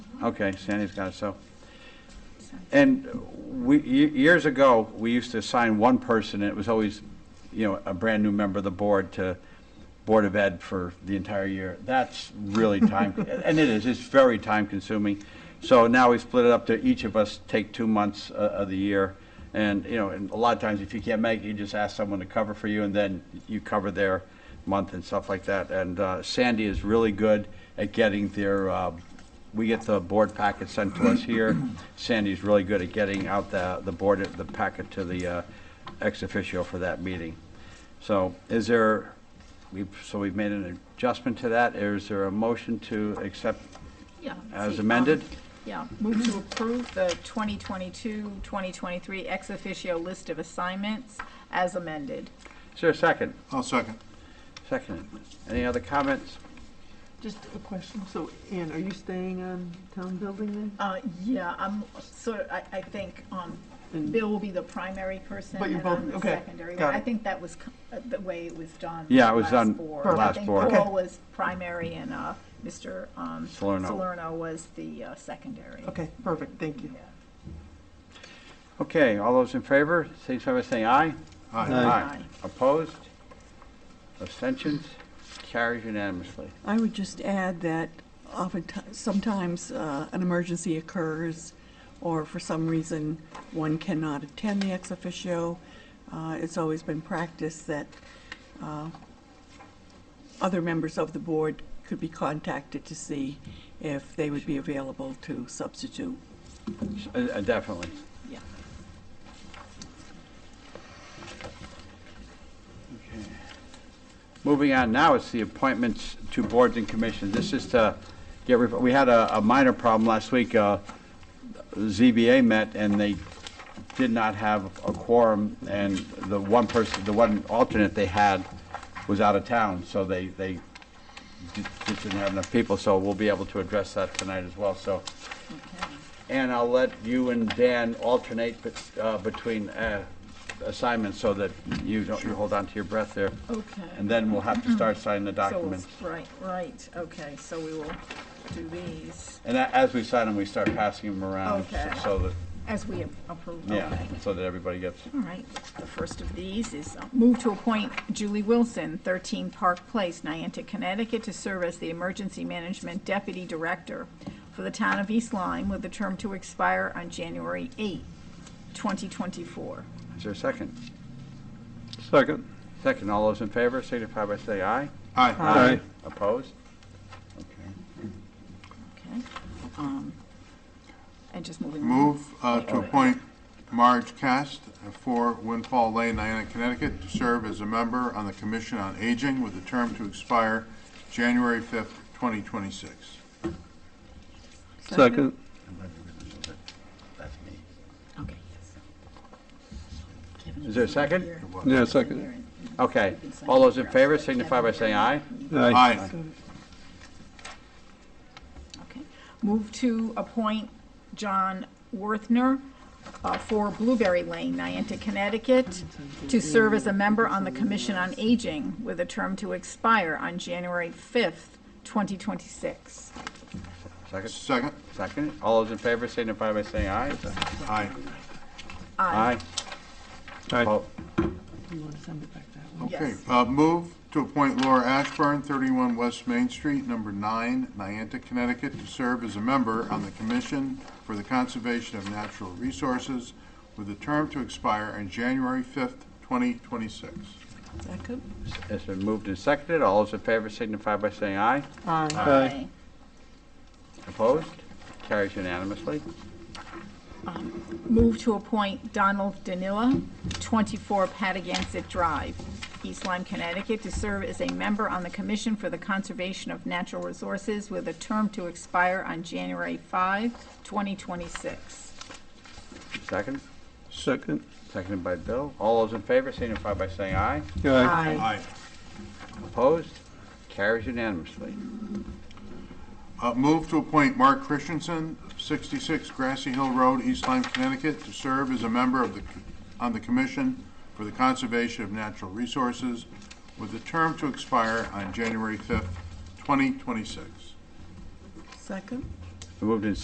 Okay, Sandy's got it, so. And we, ye- years ago, we used to assign one person, and it was always, you know, a brand-new member of the board to Board of Ed for the entire year. That's really time, and it is, it's very time-consuming. So now we split it up to each of us take two months uh, of the year. And, you know, and a lot of times, if you can't make it, you just ask someone to cover for you, and then you cover their month and stuff like that. And uh, Sandy is really good at getting their uh, we get the board packet sent to us here. Sandy's really good at getting out the, the board, the packet to the uh, ex officio for that meeting. So is there, we've, so we've made an adjustment to that. Is there a motion to accept? Yeah. As see, amended? um, Yeah, move to approve the 2022-2023 ex officio list of assignments as amended. Is there a second? I'll second. Second. Any other comments? Just a question. So, Ann, are you staying on town building then? Uh, yeah, I'm sort of, I, I think, um, And- Bill will be the primary person But you're and I'm both- the okay, secondary. got one. I it. think that was c- uh, the way it was done. Yeah, it was last done board. last board. I think Okay. Paul was primary and, uh, Mr. um, Salerno. Salerno was the uh, secondary. Okay, perfect, thank you. Yeah. Okay, all those in favor, say so by saying aye. Aye. Aye. Opposed? Abstentions? Carries unanimously. I would just add that oftentimes, sometimes uh, an emergency occurs, or for some reason, one cannot attend the ex officio. Uh, It's always been practiced that uh, other members of the board could be contacted to see if they would be available to substitute. Uh, uh, Definitely. Yeah. Moving on now, it's the appointments to boards and commissions. This is to get, re- we had a a minor problem last week. uh, ZBA met and they did not have a quorum and the one person, the one alternate they had was out of town, so they, they di- just didn't have enough people, so we'll be able to address that tonight as well, so. And I'll let you and Dan alternate bet- uh, between uh, assignments so that you don't, you hold on to your breath there. Okay. And then we'll have to start signing the Mm-hmm. So we'll- documents. Right, right, okay, so we will do these And a- as we sign them, we start passing them around so- Okay. so that, as we approve, yeah, okay. so that everybody gets. All right, the first of these is uh, move to appoint Julie Wilson, 13 Park Place, Niantic, Connecticut, to serve as the Emergency Management Deputy Director for the town of East Lyme with a term to expire on January 8, 2024. Is there a second? Second. Second, all those in favor signify by saying aye. Aye. Aye. Opposed? Okay. Okay? Um, And just moving on. Move uh, to appoint Marge Cast for Windfall Lane, Niantic, Connecticut, to serve as a member on the Commission on Aging with a term to expire January 5th, 2026. Second. That's me. Okay, yes. Kevin, Is there a second? here. Yeah, second. Here, and- Okay, all those in favor signify by saying aye. Aye. Aye. Okay. Move to appoint John Worthner uh, for Blueberry Lane, Niantic, Connecticut, to serve as a member on the Commission on Aging with a term to expire on January 5th, 2026. Second, Second? second, all those in favor signify by saying aye. Aye. Aye. Aye. Oppo- You want to send it back that way? Okay. Yes. Uh, Move to appoint Laura Ashburn, 31 West Main Street, number 9, Niantic, Connecticut, to serve as a member on the Commission for the Conservation of Natural Resources with a term to expire on January 5th, 2026. Second? It's been moved and seconded, all those in favor signify by saying aye. Aye. Aye. Opposed? Carries unanimously. Move to appoint Donald Danila, 24 Patagonic Drive, East Lyme, Connecticut, to serve as a member on the Commission for the Conservation of Natural Resources with a term to expire on January 5, 2026. Second, Second. seconded by Bill, all those in favor signify by saying aye. Aye. Aye. Opposed? Carries unanimously. Uh, Move to appoint Mark Christensen, 66 Grassy Hill Road, East Lyme, Connecticut, to serve as a member of the, on the Commission for the Conservation of Natural Resources with a term to expire on January 5th, 2026. Second? Moved and